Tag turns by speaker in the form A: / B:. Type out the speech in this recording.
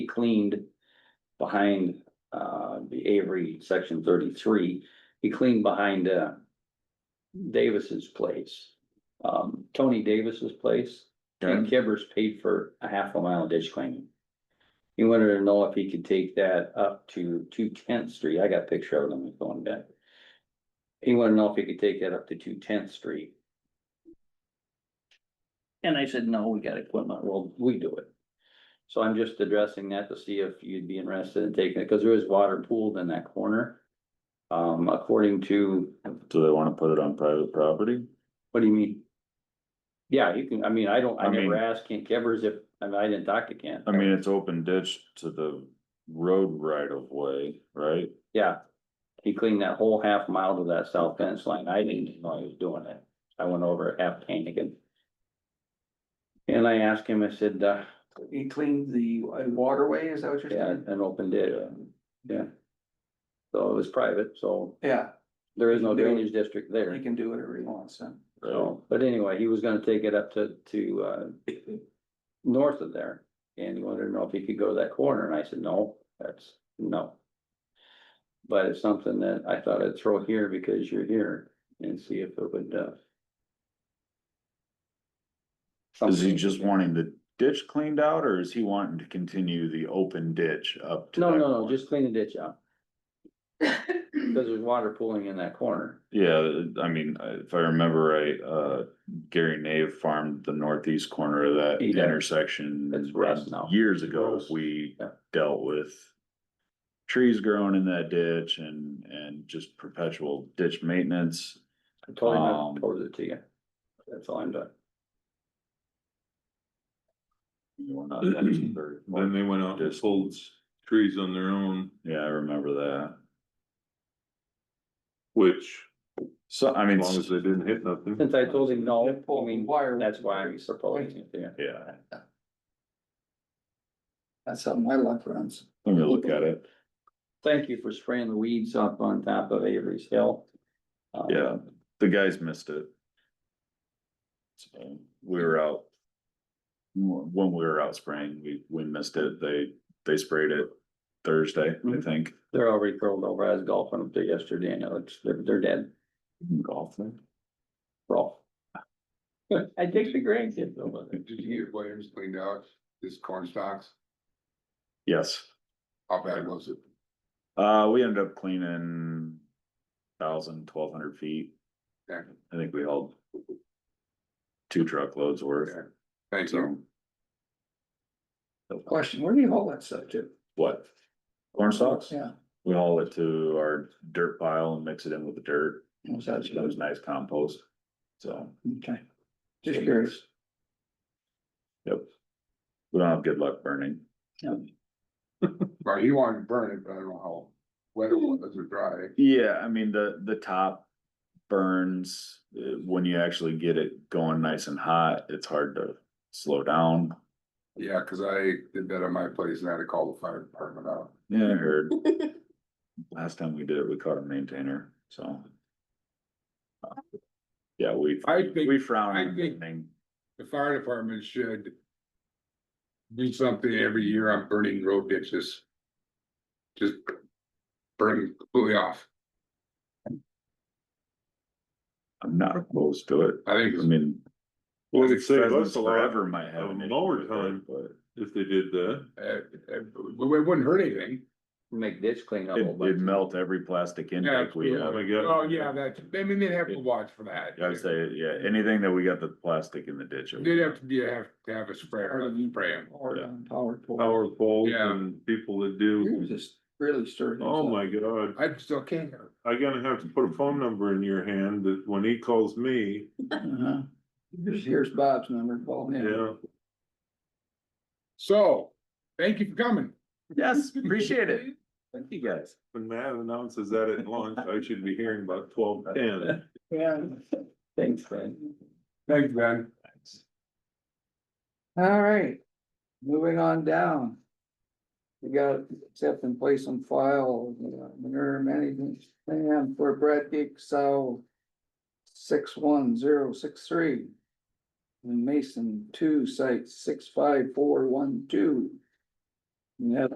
A: cleaned behind, uh, the Avery section thirty-three, he cleaned behind, uh, Davis's place, um, Tony Davis's place. And Kibbers paid for a half a mile of ditch cleaning. He wanted to know if he could take that up to two tenth street. I got a picture of it on my phone deck. He wanted to know if he could take that up to two tenth street. And I said, no, we got equipment. Well, we do it. So I'm just addressing that to see if you'd be interested in taking it, because there is water pooled in that corner. Um, according to,
B: Do they wanna put it on private property?
A: what do you mean? Yeah, you can, I mean, I don't, I
B: I
A: never
B: mean-
A: asked Kent Kevers if, I mean, I didn't talk to Kent.
B: I mean, it's open ditch to the road right of way, right?
A: Yeah, he cleaned that whole half mile to that south fence line. I didn't even know he was doing it. I went over half Hannigan. And I asked him, I said, uh,
C: He cleaned the uh, waterway, is that what you're
A: yeah,
C: saying?
A: an open ditch. Yeah. So it was private, so
C: Yeah,
A: there is no
C: They-
A: drainage district
C: he
A: there.
C: can do whatever he wants then.
B: Right.
A: So, but anyway, he was gonna take it up to, to, uh, north of there. And he wanted to know if he could go to that corner, and I said, no, that's, no. But it's something that I thought I'd throw here because you're here and see if it would, uh.
B: Is he
A: something-
B: just wanting the ditch cleaned out or is he wanting to continue the open ditch up to?
A: No,
B: that
A: no, no,
B: point?
A: just clean the ditch out. Cause there's water pooling in that corner.
B: Yeah, I mean, I- if I remember right, uh, Gary Nave farmed the northeast corner of that
A: He did.
B: intersection.
A: It's
B: and
A: rough now.
B: Years ago,
A: Gross.
B: we
A: Yeah.
B: dealt with. Trees growing in that ditch and, and just perpetual ditch maintenance.
A: I told him I
B: Um,
A: told it to you. That's all I'm doing.
D: Then they went out and
B: Just-
D: pulled s- trees on their own,
B: Yeah, I remember that.
D: which,
B: So, I
D: as
B: mean,
D: long as they didn't hit nothing.
A: Since I told him no,
C: They pulled
A: I mean,
C: wire.
A: that's why I'm supposing it, yeah.
B: yeah,
C: That's how my luck runs.
B: let me look at it.
A: Thank you for spraying the weeds up on top of Avery's Hill. Um,
B: Yeah, the guys missed it. So we were out. When we were out spraying, we, we missed it. They, they sprayed it Thursday, I
D: Mm-hmm.
A: Mhm.
B: think.
A: They're already curled over. I was golfing up there yesterday and it looks, they're, they're dead,
B: Golf thing.
A: raw. I take the grandkids over there.
E: Did you get Williams cleaned out, his corn stalks,
B: Yes,
E: how bad was it?
B: uh, we ended up cleaning thousand, twelve hundred feet.
E: Yeah.
B: I think we hauled two truckloads worth,
E: Yeah. Thank you.
B: so.
C: Question, where do you haul that stuff to?
B: What? Corn stalks?
C: Yeah,
B: We haul it to our dirt pile and mix it in with the dirt.
C: was
B: So
C: that,
B: That was nice compost. So
C: okay. Just curious.
B: we don't have good luck burning.
E: Well, he wanted to burn it, but I don't know how wet it was or dry.
B: Yeah, I mean, the, the top burns, uh, when you actually get it going nice and hot, it's hard to slow down.
E: Yeah, cause I did that at my place and I had to call the fire department out.
B: Yeah, I heard. Last time we did it, we caught a maintainer, so. Uh, Yeah, we,
E: I think-
B: we frown
E: I
B: on
E: think-
B: anything.
E: The fire department should. Do something every year on burning road ditches. Just. Burn completely off,
B: I'm not opposed to it.
E: I think,
B: I
E: it's-
B: mean.
D: Well, it'd save us a
B: Pheasants
D: lot
B: Forever might have.
D: of
B: an issue
D: mower
B: with it,
D: time.
B: But.
D: If they did that,
E: uh, uh, it wouldn't hurt anything.
A: Make ditch cleanup.
B: It, would melt every plastic intake we
D: oh
B: have.
D: my god.
E: Oh, yeah, that, I mean, they'd have to watch for that.
B: I would say, yeah, anything that we got the plastic in the ditch.
E: They'd have to, be have to have a sprayer, spray 'em.
C: Or
B: Yeah.
C: power pole.
D: Power poles
E: Yeah.
D: and people that
C: He
D: do,
C: was just really stirred.
D: oh
C: himself.
D: my god,
E: I still can't.
D: I gotta have to put a phone number in your hand that when he calls me,
C: Uh-huh. Here's, here's Bob's number, call him.
D: yeah.
E: So, thank you for coming.
B: Yes, appreciate it. Thank you guys.
D: When Matt announces that at lunch, I should be hearing about twelve ten.
C: Yeah.
A: Thanks, Ben.
E: Thanks, Ben.
C: All right, moving on down. We got accept and place on file, you know, manure management plan for Brad Dick, so. Six one zero six three. And Mason two site six five four one two. And that